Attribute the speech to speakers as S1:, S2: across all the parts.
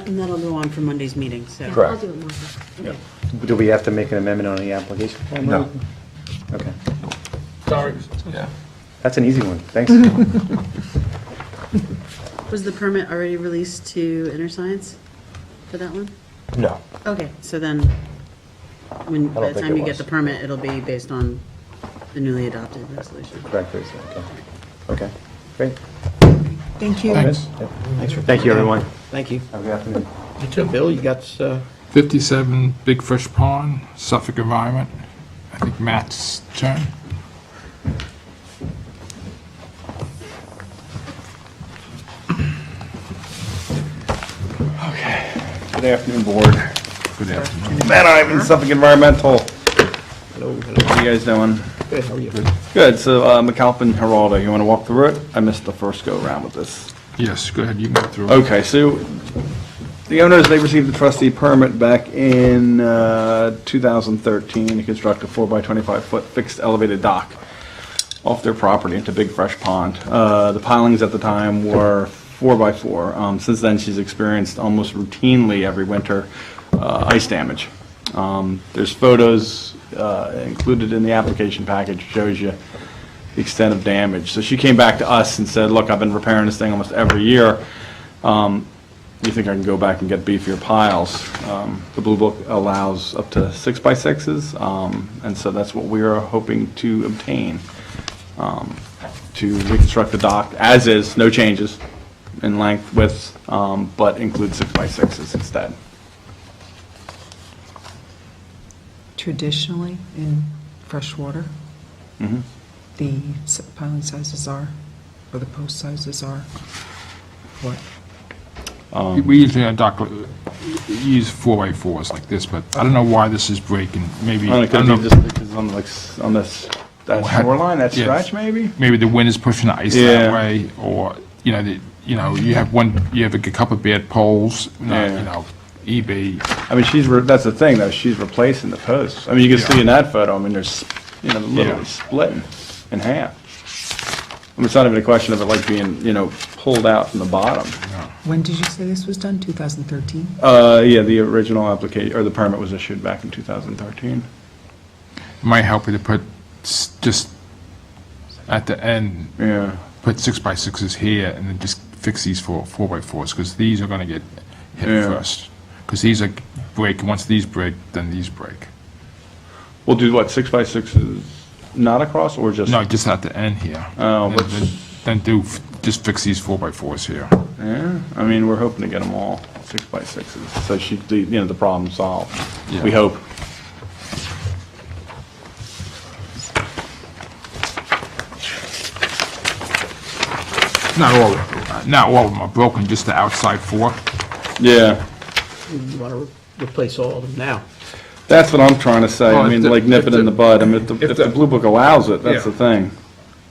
S1: And that'll go on for Monday's meeting, so.
S2: Correct.
S3: I'll do it, Martha. Okay.
S4: Do we have to make an amendment on the application form?
S2: No.
S4: Okay.
S5: Sorry.
S2: Yeah.
S4: That's an easy one. Thanks.
S1: Was the permit already released to InterScience for that one?
S2: No.
S1: Okay, so then, when,
S2: don't
S1: by the
S2: think
S1: time
S2: it
S1: you get
S2: was.
S1: the permit, it'll be based on the newly adopted resolution.
S4: Correct, Lisa. Okay. Okay, great.
S6: Thank you.
S7: Thanks.
S4: Thank you, everyone.
S7: Thank you.
S4: Have a good afternoon.
S7: You too, Bill, you got, uh,
S5: 57 Big Fish Pond, Suffolk Environment. I think Matt's turn.
S4: Good afternoon, Board. Good afternoon. Matt Ivan, Suffolk Environmental.
S7: hello, hello.
S4: How you guys doing?
S7: Good, how are you?
S4: Good. So uh, McAlpin Geraldo, you want to walk through it? I missed the first go-around with this.
S5: Yes, go ahead, you can go through.
S4: Okay, so the owners, they received the trustee permit back in uh, 2013 to construct a 4 by 25-foot fixed elevated dock off their property into Big Fresh Pond. Uh, The pilings at the time were 4 by 4. Um, Since then, she's experienced almost routinely every winter uh, ice damage. Um, There's photos uh, included in the application package, shows you the extent of damage. So she came back to us and said, look, I've been repairing this thing almost every year. Um, You think I can go back and get beefier piles? Um, The Blue Book allows up to six by sixes, um, and so that's what we are hoping to obtain, um, to reconstruct the dock as is, no changes in length, width, um, but include six by sixes instead.
S6: Traditionally, in freshwater,
S3: Mm-hmm.
S6: the s- piling sizes are, or the post sizes are, what?
S5: We usually have doc, use 4x4s like this, but I don't know why this is breaking. Maybe,
S4: I
S5: I
S4: don't know,
S5: don't
S4: could be
S5: know,
S4: just because on like, s- on this, that shoreline, that
S5: Yes.
S4: stretch maybe?
S5: maybe the wind is pushing the ice
S4: Yeah.
S5: that way, or, you know, the, you know, you have one, you have a couple of bad poles, you know,
S4: Yeah.
S5: you know, E EB,
S4: I mean, she's, re- that's the thing, though, she's replacing the posts. I mean, you can see
S5: Yeah.
S4: in that photo, I mean, there's, you know, literally
S5: Yeah.
S4: splitting in half. I mean, it's not even a question of it like being, you know, pulled out from the bottom.
S6: When did you say this was done? 2013?
S4: Uh, yeah, the original application, or the permit was issued back in 2013.
S5: might help you to put, s- just at the end,
S4: Yeah,
S5: put six by sixes here and then just fix these four, four by fours, because these are gonna get hit
S4: Yeah.
S5: first. Because these are break, once these break, then these break.
S4: we'll do what, six by sixes, not across, or just?
S5: No, just at the end here.
S4: Oh,
S5: And
S4: what's-
S5: Then then do, f- just fix these four by fours here.
S4: Yeah, I mean, we're hoping to get them all six by sixes, so she, the- you know, the problem solved, we
S5: Yeah.
S4: hope.
S5: Not all, uh, not all of them are broken, just the outside four.
S4: Yeah,
S7: You want to replace all of them now?
S4: That's what I'm trying to say.
S5: Well,
S4: I
S5: if
S4: mean,
S5: the-
S4: like nip
S5: if
S4: it
S5: the-
S4: in the bud. I mean, if the, if the
S5: the-
S4: Blue Book allows it, that's the
S5: Yeah.
S4: thing.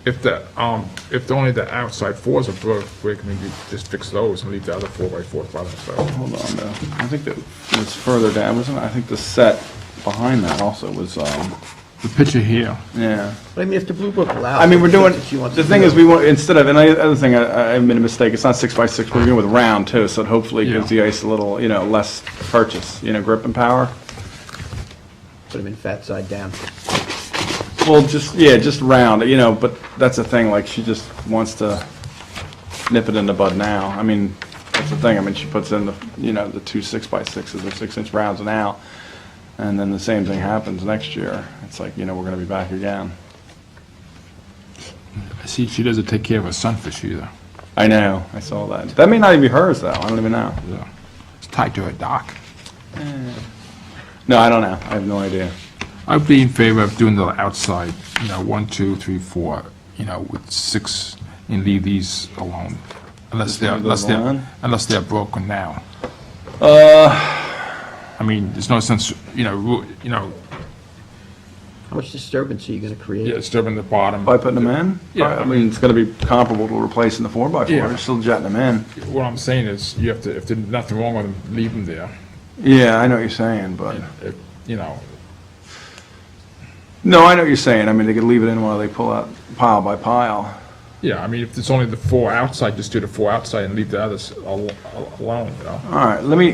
S5: If the, um, if only the outside fours are broke, we can just fix those and leave the other four by fours by themselves.
S4: Hold on, though. I think that it was further down, wasn't it? I think the set behind that also was, um,
S5: The picture here,
S4: yeah.
S7: But I mean, if the Blue Book allows.
S4: I mean, we're
S7: it, that's
S4: doing,
S7: what you want
S4: the
S7: to
S4: thing
S7: do.
S4: is, we want, instead of, and I, other thing, I, I made a mistake. It's not six by six. We're doing with round too, so it hopefully gives
S5: Yeah.
S4: the ice a little, you know, less purchase, you know, grip and power.
S7: Put them in fat side down.
S4: Well, just, yeah, just round, you know, but that's the thing, like, she just wants to nip it in the bud now. I mean, that's the thing, I mean, she puts in the, you know, the two six by sixes or six inch rounds now, and then the same thing happens next year. It's like, you know, we're gonna be back again.
S5: I see she doesn't take care of her sunfish either.
S4: I know, I saw that. That may not even be hers, though, I don't even know.
S5: Yeah. It's tied to her dock.
S4: No, I don't know, I have no idea.
S5: I'd be in favor of doing the outside, you know, one, two, three, four, you know, with six, and leave these alone. Unless they're,
S4: leave
S5: unless
S4: those alone? Uh.
S5: they're, unless they're broken now. I mean, there's no sense, you know, ru- you know,
S7: How much disturbance are you going to create?
S5: yeah, disturbing the bottom.
S4: By putting them in?
S5: Yeah.
S4: I mean, it's gonna be comparable to replacing the four by four,
S5: Yeah.
S4: We're still jetting them in.
S5: What I'm saying is, you have to, if there's nothing wrong with them, leave them there,
S4: Yeah, I know what you're saying, but.
S5: If, you know.
S4: No, I know what you're saying. I mean, they could leave it in while they pull out pile by pile.
S5: Yeah, I mean, if it's only the four outside, just do the four outside and leave the others al- al- alone, you know?
S4: All right, let me,